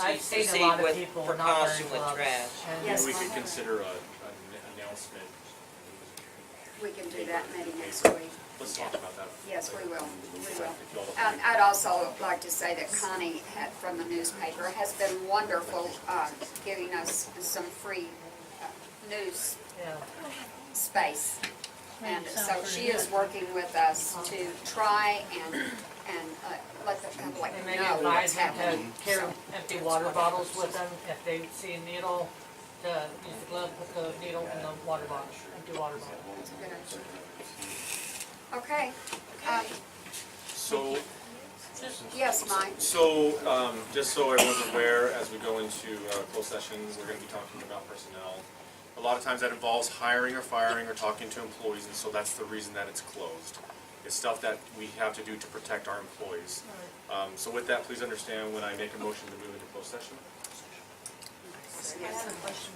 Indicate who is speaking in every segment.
Speaker 1: I've
Speaker 2: to
Speaker 1: seen a lot
Speaker 2: proceed
Speaker 1: of
Speaker 2: with
Speaker 1: people not burn
Speaker 2: precaution with
Speaker 1: clubs.
Speaker 2: trash.
Speaker 1: and- uh,
Speaker 3: Yes.
Speaker 4: We
Speaker 3: I
Speaker 4: could
Speaker 3: have.
Speaker 4: consider a, an announcement.
Speaker 3: We can do that maybe next week.
Speaker 4: Let's talk about that.
Speaker 3: Yes, we will, we will.
Speaker 4: If y'all
Speaker 3: Um,
Speaker 4: agree.
Speaker 3: I'd also like to say that Connie had, from the newspaper, has been wonderful, uh, giving us some free, uh, news
Speaker 1: Yeah.
Speaker 3: space. And so she is working with us to try and, and, uh, let the public
Speaker 1: And maybe
Speaker 3: know what's
Speaker 1: advise them
Speaker 3: happening.
Speaker 1: to carry
Speaker 3: So,
Speaker 1: empty water bottles with them, if they see a needle, to use the glove, put the needle in the water bottle, empty water bottle.
Speaker 3: that's a good idea. Okay, um,
Speaker 4: So,
Speaker 3: yes, Mike?
Speaker 4: so, um, just so everyone's aware, as we go into, uh, closed sessions, we're gonna be talking about personnel. A lot of times that involves hiring or firing or talking to employees, and so that's the reason that it's closed. It's stuff that we have to do to protect our employees. Um, so with that, please understand when I make a motion to move into closed session.
Speaker 5: I have a question.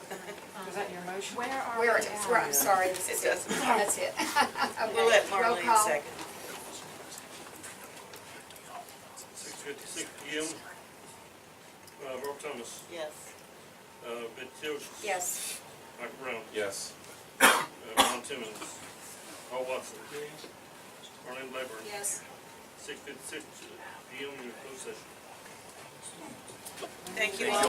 Speaker 5: Is that your motion? Where are we
Speaker 3: Where,
Speaker 5: at?
Speaker 3: where, I'm sorry, this is
Speaker 2: It
Speaker 3: it.
Speaker 2: doesn't matter.
Speaker 3: That's it. Okay,
Speaker 2: We'll let
Speaker 3: roll
Speaker 2: Marlene
Speaker 3: call.
Speaker 2: second.
Speaker 6: Six fifty-six P M. Uh, Rob Thomas,
Speaker 2: Yes.
Speaker 6: uh, Ben Joseph.
Speaker 3: Yes,
Speaker 6: Michael Brown,
Speaker 4: Yes.
Speaker 6: uh, Ron Timmons, Paul Watson. Marlene Blackburn.
Speaker 3: yes.
Speaker 6: uh, Six fifty-six P M, your closed session.
Speaker 2: Thank you all.